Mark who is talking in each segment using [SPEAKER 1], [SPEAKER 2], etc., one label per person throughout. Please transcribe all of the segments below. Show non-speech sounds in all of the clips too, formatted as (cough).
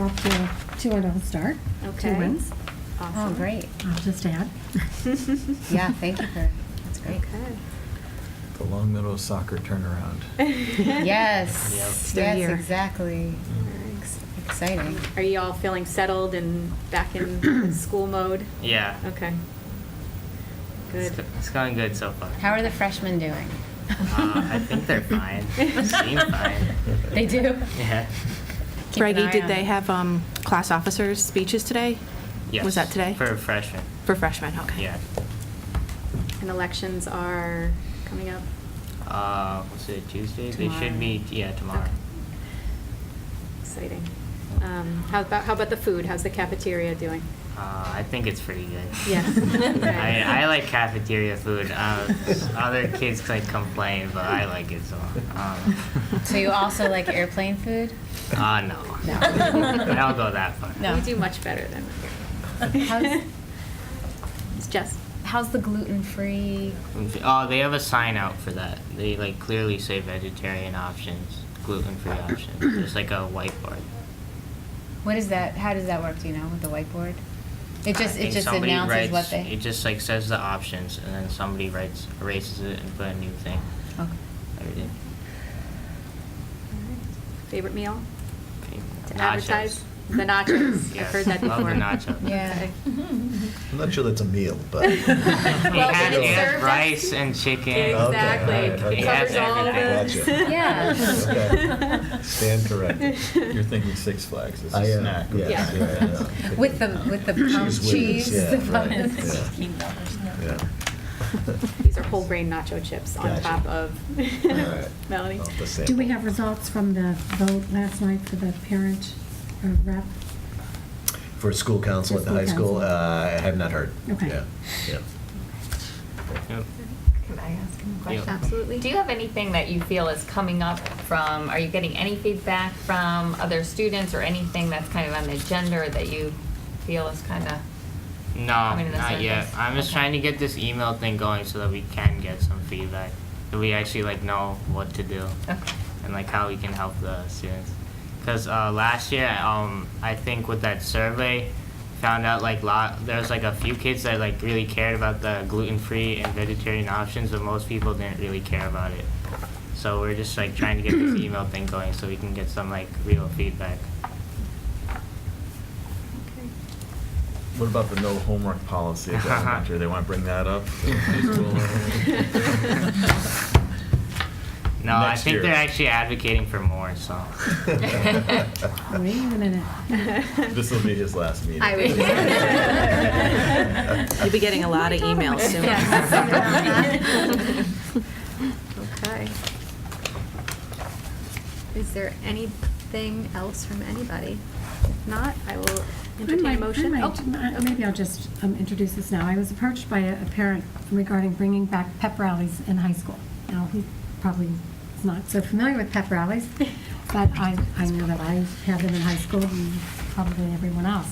[SPEAKER 1] off to a 2 0 start.
[SPEAKER 2] Okay.
[SPEAKER 1] Two wins,
[SPEAKER 2] Awesome.
[SPEAKER 3] Oh,
[SPEAKER 2] (laughs)
[SPEAKER 3] (laughs) great.
[SPEAKER 1] I'll just add.
[SPEAKER 3] Yeah, thank you for, that's great.
[SPEAKER 4] The Long Meadow soccer turnaround.
[SPEAKER 5] (laughs)
[SPEAKER 2] Okay. (laughs)
[SPEAKER 3] Yes,
[SPEAKER 5] They're
[SPEAKER 3] yes,
[SPEAKER 5] here.
[SPEAKER 3] exactly.
[SPEAKER 2] Alright.
[SPEAKER 3] Ex- Exciting.
[SPEAKER 2] Are you all feeling settled and back
[SPEAKER 3] (clears throat)
[SPEAKER 2] in school mode?
[SPEAKER 5] Yeah.
[SPEAKER 2] Okay.
[SPEAKER 5] It's
[SPEAKER 2] Good.
[SPEAKER 5] go- It's going good so far.
[SPEAKER 3] How are the freshmen doing?
[SPEAKER 5] Uh, I think
[SPEAKER 3] (laughs)
[SPEAKER 5] they're fine. They seem fine.
[SPEAKER 3] They do?
[SPEAKER 5] Yeah.
[SPEAKER 3] Keep an
[SPEAKER 5] Reggie,
[SPEAKER 3] eye
[SPEAKER 6] Brady, did
[SPEAKER 3] on
[SPEAKER 6] they
[SPEAKER 3] it.
[SPEAKER 6] have um, class officers' speeches today?
[SPEAKER 5] Yes.
[SPEAKER 6] Was that today?
[SPEAKER 5] For freshmen.
[SPEAKER 6] For freshmen, okay.
[SPEAKER 5] Yeah.
[SPEAKER 2] And elections are coming up.
[SPEAKER 5] Uh, what's it, Tuesday? They
[SPEAKER 2] Tomorrow.
[SPEAKER 5] should meet, yeah, tomorrow.
[SPEAKER 2] Okay. Exciting. Um, how about how about the food? How's the cafeteria doing?
[SPEAKER 5] Uh, I think it's pretty good. (laughs)
[SPEAKER 2] Yeah.
[SPEAKER 5] I, I like cafeteria food. Um, other kids like complain, but I like (laughs) it so. Um,
[SPEAKER 3] So you also like airplane food?
[SPEAKER 5] uh, no.
[SPEAKER 2] No.
[SPEAKER 5] (laughs) I'll go that far.
[SPEAKER 3] No.
[SPEAKER 2] We do much better than we
[SPEAKER 3] How's-
[SPEAKER 2] (laughs) It's just
[SPEAKER 3] How's the gluten-free?
[SPEAKER 5] Oh, they have a sign out for that. They like clearly say vegetarian options, gluten-free options. There's like a whiteboard.
[SPEAKER 3] What is that, how does that work, do you know, with the whiteboard? It
[SPEAKER 5] I
[SPEAKER 3] just, it
[SPEAKER 5] think
[SPEAKER 3] just
[SPEAKER 5] somebody
[SPEAKER 3] announces
[SPEAKER 5] writes-
[SPEAKER 3] what they.
[SPEAKER 5] It just like says the options, and then somebody writes, erases it, and put a new thing.
[SPEAKER 3] Okay.
[SPEAKER 5] Everything.
[SPEAKER 2] favorite meal to
[SPEAKER 5] Nachos. (clears throat)
[SPEAKER 2] advertise the nachos. I've
[SPEAKER 5] Yes,
[SPEAKER 2] heard that before.
[SPEAKER 5] love the
[SPEAKER 2] (laughs)
[SPEAKER 5] nachos.
[SPEAKER 3] Yeah.
[SPEAKER 2] Okay.
[SPEAKER 4] I'm not sure that's a meal,
[SPEAKER 5] (laughs)
[SPEAKER 4] but.
[SPEAKER 5] It
[SPEAKER 2] Well,
[SPEAKER 5] has,
[SPEAKER 2] and
[SPEAKER 5] it
[SPEAKER 2] it's
[SPEAKER 5] has
[SPEAKER 2] served
[SPEAKER 5] rice and chicken.
[SPEAKER 4] Okay,
[SPEAKER 2] Exactly.
[SPEAKER 4] alright,
[SPEAKER 5] It
[SPEAKER 4] okay.
[SPEAKER 5] has
[SPEAKER 2] Covers all of
[SPEAKER 5] everything.
[SPEAKER 2] it. (laughs)
[SPEAKER 4] Gotcha.
[SPEAKER 2] Yeah.
[SPEAKER 4] Okay. Stand
[SPEAKER 2] (laughs)
[SPEAKER 4] corrected.
[SPEAKER 5] You're thinking Six Flags
[SPEAKER 4] I am,
[SPEAKER 2] yes, Yeah.
[SPEAKER 4] yeah, yeah.
[SPEAKER 3] With the, with the
[SPEAKER 4] Cheese
[SPEAKER 3] pump
[SPEAKER 4] whiz,
[SPEAKER 3] cheese.
[SPEAKER 4] yeah,
[SPEAKER 3] the
[SPEAKER 4] right,
[SPEAKER 3] pump-
[SPEAKER 4] yeah. Yeah. (laughs)
[SPEAKER 2] These are whole grain nacho chips on
[SPEAKER 4] Gotcha.
[SPEAKER 2] top of
[SPEAKER 4] All right.
[SPEAKER 2] (laughs) Melanie.
[SPEAKER 4] Off the
[SPEAKER 1] Do we
[SPEAKER 4] sample.
[SPEAKER 2] (laughs)
[SPEAKER 1] have results from the vote last night for the parent uh, rep?
[SPEAKER 4] For school council at the
[SPEAKER 1] For
[SPEAKER 4] high
[SPEAKER 1] school
[SPEAKER 4] school,
[SPEAKER 1] council.
[SPEAKER 4] uh, I have not heard.
[SPEAKER 1] Okay.
[SPEAKER 4] Yeah, yeah.
[SPEAKER 5] Yep.
[SPEAKER 7] Could I ask him a
[SPEAKER 5] Yeah.
[SPEAKER 7] question?
[SPEAKER 2] Absolutely.
[SPEAKER 7] Do you have anything that you feel is coming up from, are you getting any feedback from other students or anything that's kind of on the agenda that you feel is kind of?
[SPEAKER 5] No,
[SPEAKER 7] mean, in the
[SPEAKER 5] not yet.
[SPEAKER 7] sentence.
[SPEAKER 5] I'm just trying to get this email thing going so that we can get some feedback. That we actually like know what to do.
[SPEAKER 7] Okay.
[SPEAKER 5] and like how we can help the students. Because uh, last year, um, I think with that survey, found out like lot there was like a few kids that like really cared about the gluten free and vegetarian options, but most people didn't really care about it. So we're just like trying to get
[SPEAKER 8] (clears throat)
[SPEAKER 5] this email thing going so we can get some like real feedback.
[SPEAKER 8] What about the no homework policy
[SPEAKER 5] (laughs)
[SPEAKER 8] at the elementary? They want to bring that up? (laughs)
[SPEAKER 5] No, I
[SPEAKER 8] Next
[SPEAKER 5] think
[SPEAKER 8] year.
[SPEAKER 5] they're
[SPEAKER 8] (laughs)
[SPEAKER 5] actually
[SPEAKER 6] (laughs)
[SPEAKER 5] advocating for more. (laughs) So
[SPEAKER 1] Wait a minute.
[SPEAKER 3] (laughs)
[SPEAKER 8] This will be his last meeting.
[SPEAKER 2] I would.
[SPEAKER 8] (laughs)
[SPEAKER 6] (laughs) You'll be getting a lot of emails soon.
[SPEAKER 2] Yes. (laughs)
[SPEAKER 6] (laughs)
[SPEAKER 2] Okay. Is there anything else from anybody? If not, I will entertain
[SPEAKER 1] I
[SPEAKER 2] a
[SPEAKER 1] might-
[SPEAKER 2] motion.
[SPEAKER 1] I
[SPEAKER 2] Oh,
[SPEAKER 1] might-
[SPEAKER 2] okay.
[SPEAKER 1] Maybe I'll just um, introduce this now. I was approached by a a parent regarding bringing back pep rallies in high school. Now, he probably is not so familiar with pep
[SPEAKER 2] (laughs)
[SPEAKER 1] rallies, but I, I know that I had them in high school and probably everyone else.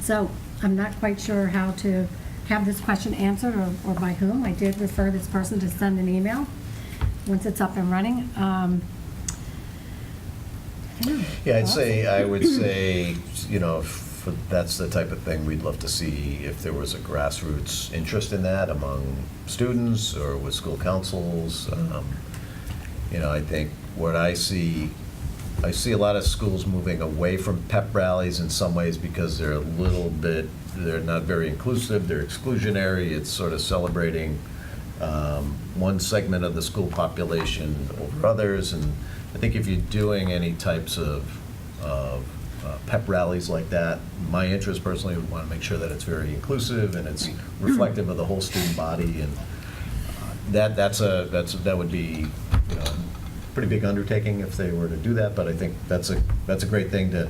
[SPEAKER 1] So I'm not quite sure how to have this question answered or or by whom. I did refer this person to send an email once it's up and running. Um, I don't know.
[SPEAKER 4] Yeah, I'd say,
[SPEAKER 1] (coughs)
[SPEAKER 4] I would say, you know, for- that's the type of thing we'd love to see if there was a grassroots interest in that among students or with school councils. Um, You know, I think what I see, I see a lot of schools moving away from pep rallies in some ways because they're a little bit, they're not very inclusive, they're exclusionary, it's sort of celebrating um, one segment of the school population over others, and I think if you're doing any types of, of uh, pep rallies like that, my interest personally would want to make sure that it's very inclusive and it's reflective of the whole student body, and uh, that, that's a, that's, that would be, you know, a pretty big undertaking if they were to do that, but I think that's a, that's a great thing to,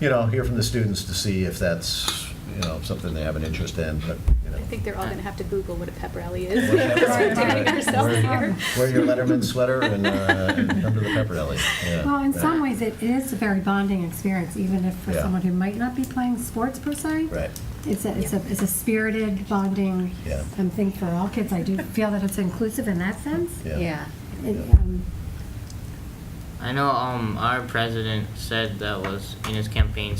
[SPEAKER 4] you know, hear from the students to see if that's, you know, something they have an interest in, but, you know.
[SPEAKER 2] I think they're all going to have to Google what a pep rally is.
[SPEAKER 4] What a
[SPEAKER 2] (laughs)
[SPEAKER 4] pep
[SPEAKER 2] because we're
[SPEAKER 4] rally
[SPEAKER 2] doing
[SPEAKER 4] is.
[SPEAKER 2] ourselves
[SPEAKER 4] Where-
[SPEAKER 2] here.
[SPEAKER 4] Wear your Letterman
[SPEAKER 2] (laughs)
[SPEAKER 4] sweater and, uh, and come to the pep rally. Yeah.
[SPEAKER 1] Well, in some
[SPEAKER 4] Yeah.
[SPEAKER 1] ways, it is a very bonding experience, even if for
[SPEAKER 4] Yeah.
[SPEAKER 1] someone who might not be playing sports per se.
[SPEAKER 4] Right.
[SPEAKER 1] It's a, it's a, it's a spirited bonding
[SPEAKER 4] Yeah.
[SPEAKER 1] um, thing for all kids. I do feel that it's inclusive in that sense.
[SPEAKER 4] Yeah.
[SPEAKER 3] Yeah.
[SPEAKER 1] It, um,
[SPEAKER 5] I know um, our president said that was in his campaign